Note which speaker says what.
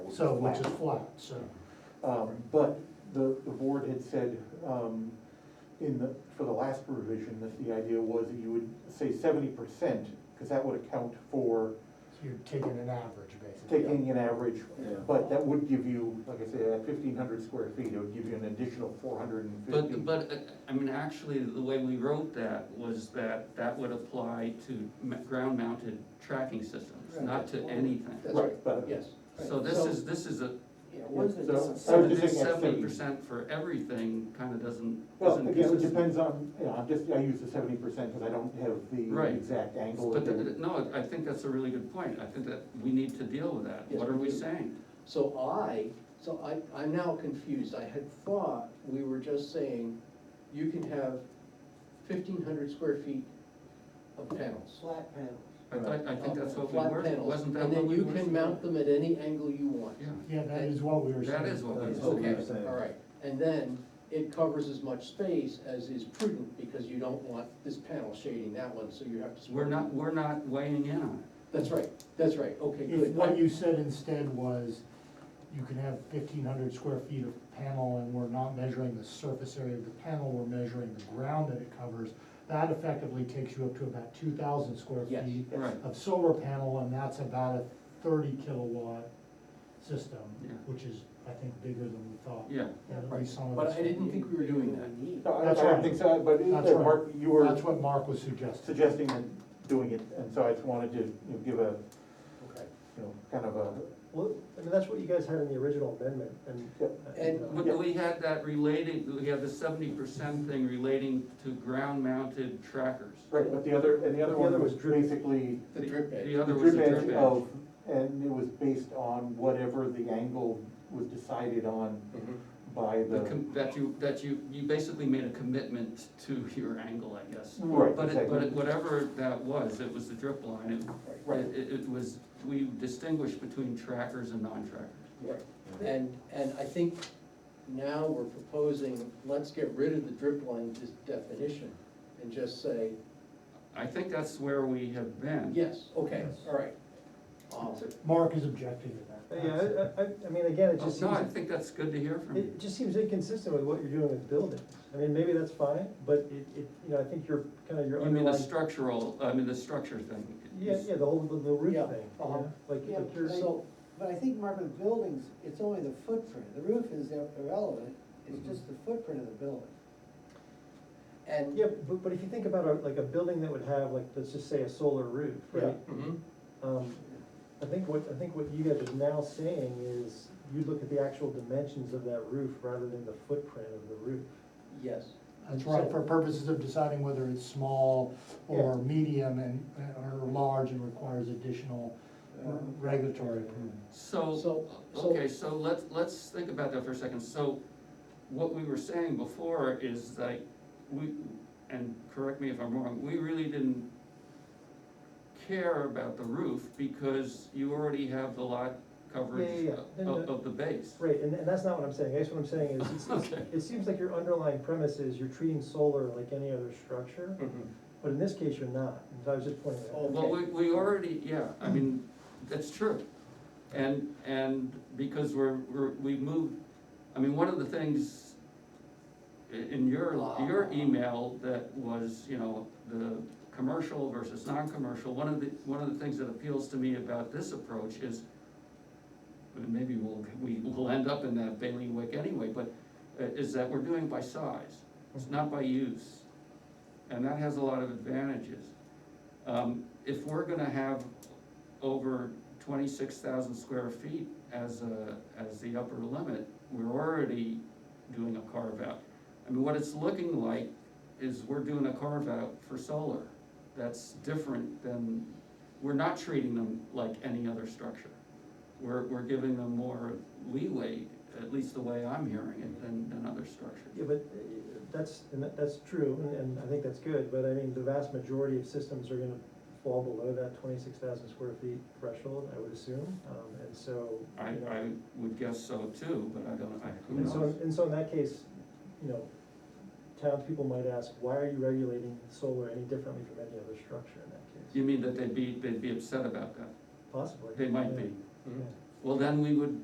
Speaker 1: which is
Speaker 2: so, which
Speaker 1: flat.
Speaker 2: is flat, so,
Speaker 1: Um, but the, the board had said, um, in the, for the last revision, that the idea was that you would say seventy percent, because that would account for
Speaker 2: you're taking an average, basically.
Speaker 1: taking an average.
Speaker 3: Yeah.
Speaker 1: But that would give you, like I said, at fifteen hundred square feet, it would give you an additional four hundred and fifty.
Speaker 4: But, but, uh, I mean, actually, the way we wrote that was that that would apply to ground mounted tracking systems, not to anything.
Speaker 5: That's right,
Speaker 1: Right, but,
Speaker 5: yes.
Speaker 4: So this is, this is a,
Speaker 5: Yeah, what is the
Speaker 1: So-
Speaker 5: distance?
Speaker 1: so I was just
Speaker 4: this
Speaker 1: thinking at 70.
Speaker 4: seventy percent for everything kind of doesn't,
Speaker 1: well,
Speaker 4: isn't
Speaker 1: again, it
Speaker 4: consistent.
Speaker 1: depends on, you know, I'm just, I use the seventy percent, because I don't have
Speaker 4: Right.
Speaker 1: the exact angle.
Speaker 4: But,
Speaker 1: of
Speaker 4: th-
Speaker 1: it.
Speaker 4: th- no, I think that's a really good point, I think that we need to deal with that,
Speaker 5: Yes,
Speaker 4: what are
Speaker 5: we
Speaker 4: we
Speaker 5: do.
Speaker 4: saying?
Speaker 5: So I, so I, I'm now confused, I had thought we were just saying, you can have fifteen hundred square feet of panels.
Speaker 6: Flat panels.
Speaker 4: I thought, I think that's what we
Speaker 5: Flat
Speaker 4: were,
Speaker 5: panels,
Speaker 4: wasn't that what we were?
Speaker 5: And then you can mount them at any angle you want.
Speaker 4: Yeah,
Speaker 2: Yeah, that is what we were saying.
Speaker 4: that is what we,
Speaker 3: That's what we
Speaker 4: okay,
Speaker 3: were saying.
Speaker 5: All right, and then it covers as much space as is prudent, because you don't want this panel shading that one, so you have to.
Speaker 4: we're not, we're not weighing in on it,
Speaker 5: That's right, that's right, okay,
Speaker 2: If
Speaker 5: good.
Speaker 2: what you said instead was, you can have fifteen hundred square feet of panel and we're not measuring the surface area of the panel, we're measuring the ground that it covers, that effectively takes you up to about two thousand square
Speaker 5: Yes.
Speaker 2: feet
Speaker 4: right,
Speaker 2: of solar panel, and that's about a thirty kilowatt system,
Speaker 4: Yeah.
Speaker 2: which is, I think, bigger than we thought.
Speaker 4: yeah.
Speaker 2: At least some of
Speaker 5: But
Speaker 2: us-
Speaker 5: I didn't think we were doing that.
Speaker 1: No, I-
Speaker 2: That's
Speaker 1: I don't
Speaker 2: right.
Speaker 1: think so, but it-
Speaker 2: That's
Speaker 1: uh,
Speaker 2: right.
Speaker 1: Mark, you were
Speaker 2: That's what Mark was suggesting.
Speaker 1: suggesting that doing it, and so I just wanted to, you know, give a,
Speaker 7: Okay.
Speaker 1: you know, kind of a,
Speaker 7: Well, I mean, that's what you guys had in the original amendment, and.
Speaker 1: Yeah.
Speaker 5: And-
Speaker 7: uh,
Speaker 4: But we had that relating, we had the seventy percent thing relating to ground mounted trackers.
Speaker 1: right, but the other, and the other
Speaker 7: The
Speaker 1: one
Speaker 7: other
Speaker 1: was
Speaker 7: was drip.
Speaker 1: basically
Speaker 5: The drip edge.
Speaker 4: The
Speaker 1: the
Speaker 4: other was
Speaker 1: drip
Speaker 4: the
Speaker 1: edge
Speaker 4: drip edge.
Speaker 1: of, and it was based on whatever the angle was decided on by
Speaker 4: The
Speaker 1: the,
Speaker 4: com- That you, that you, you basically made a commitment to your angle, I guess.
Speaker 1: right,
Speaker 4: But it, but it,
Speaker 1: exactly.
Speaker 4: whatever that was, it was the drip line, it,
Speaker 1: Right.
Speaker 4: it, it was, we distinguished between trackers and non-trackers.
Speaker 5: And, and I think now we're proposing, let's get rid of the drip line dis- definition and just say,
Speaker 4: I think that's where we have been.
Speaker 5: yes, okay,
Speaker 2: Yes.
Speaker 5: all right. Um,
Speaker 2: Mark is objecting to that.
Speaker 7: Yeah, I, I, I mean, again, it
Speaker 4: Oh,
Speaker 7: just
Speaker 4: No, I
Speaker 7: seems,
Speaker 4: think that's good to hear from you.
Speaker 7: it just seems inconsistent with what you're doing with buildings. I mean, maybe that's fine, but it, it, you know, I think you're kind of, your
Speaker 4: You mean the
Speaker 7: underlying,
Speaker 4: structural, I mean, the structure thing.
Speaker 7: yeah, yeah, the whole, the the roof thing,
Speaker 5: Yeah,
Speaker 7: you
Speaker 5: uh-huh.
Speaker 7: know? Like,
Speaker 6: Yeah,
Speaker 7: like you're,
Speaker 5: So,
Speaker 6: But I think, Mark, with buildings, it's only the footprint, the roof is ir- irrelevant,
Speaker 1: Mm-hmm.
Speaker 6: it's just the footprint of the building.
Speaker 5: and,
Speaker 7: yeah, but, but if you think about a, like a building that would have, like, let's just say a solar roof, right?
Speaker 4: Mhm.
Speaker 7: Um, I think what, I think what you guys are now saying is, you look at the actual dimensions of that roof rather than the footprint of the roof.
Speaker 5: yes,
Speaker 2: That's right, for purposes of deciding whether it's small or
Speaker 7: Yeah.
Speaker 2: medium and, or large and requires additional re- regulatory approval.
Speaker 4: So,
Speaker 5: So- so-
Speaker 4: okay, so let's, let's think about that for a second. So what we were saying before is like, we, and correct me if I'm wrong, we really didn't care about the roof because you already have the lot coverage
Speaker 7: Yeah, yeah, yeah.
Speaker 4: of, of the base.
Speaker 7: Right, and, and that's not what I'm saying, I guess what I'm saying is, it's- it's-
Speaker 4: Okay.
Speaker 7: it seems like your underlying premise is you're treating solar like any other structure,
Speaker 4: Mm-hmm.
Speaker 7: but in this case, you're not, and so I was just pointing that out.
Speaker 5: Oh.
Speaker 4: Well, we, we already, yeah, I mean, that's true. And, and because we're, we're, we moved, I mean, one of the things i- in your, your email that was, you know, the commercial versus non-commercial, one of the, one of the things that appeals to me about this approach is, and maybe we'll, we will end up in that bailiwick anyway, but uh, is that we're doing by size, it's not by use. And that has a lot of advantages. Um, if we're gonna have over twenty-six thousand square feet as a, as the upper limit, we're already doing a carve-out. I mean, what it's looking like is we're doing a carve-out for solar. That's different than, we're not treating them like any other structure. We're, we're giving them more leeway, at least the way I'm hearing it, than, than other structures.
Speaker 7: Yeah, but uh, that's, and that- that's true, and, and I think that's good, but I mean, the vast majority of systems are gonna fall below that twenty-six thousand square feet threshold, I would assume, um, and so.
Speaker 4: I,
Speaker 7: you know,
Speaker 4: I would guess so too, but I don't, I, who
Speaker 7: And so,
Speaker 4: knows?
Speaker 7: and so in that case, you know, townspeople might ask, why are you regulating solar any differently from any other structure in that case?
Speaker 4: You mean that they'd be, they'd be upset about that?
Speaker 7: Possibly.
Speaker 4: They might
Speaker 7: yeah.
Speaker 4: be.
Speaker 7: Yeah.
Speaker 4: Well, then we would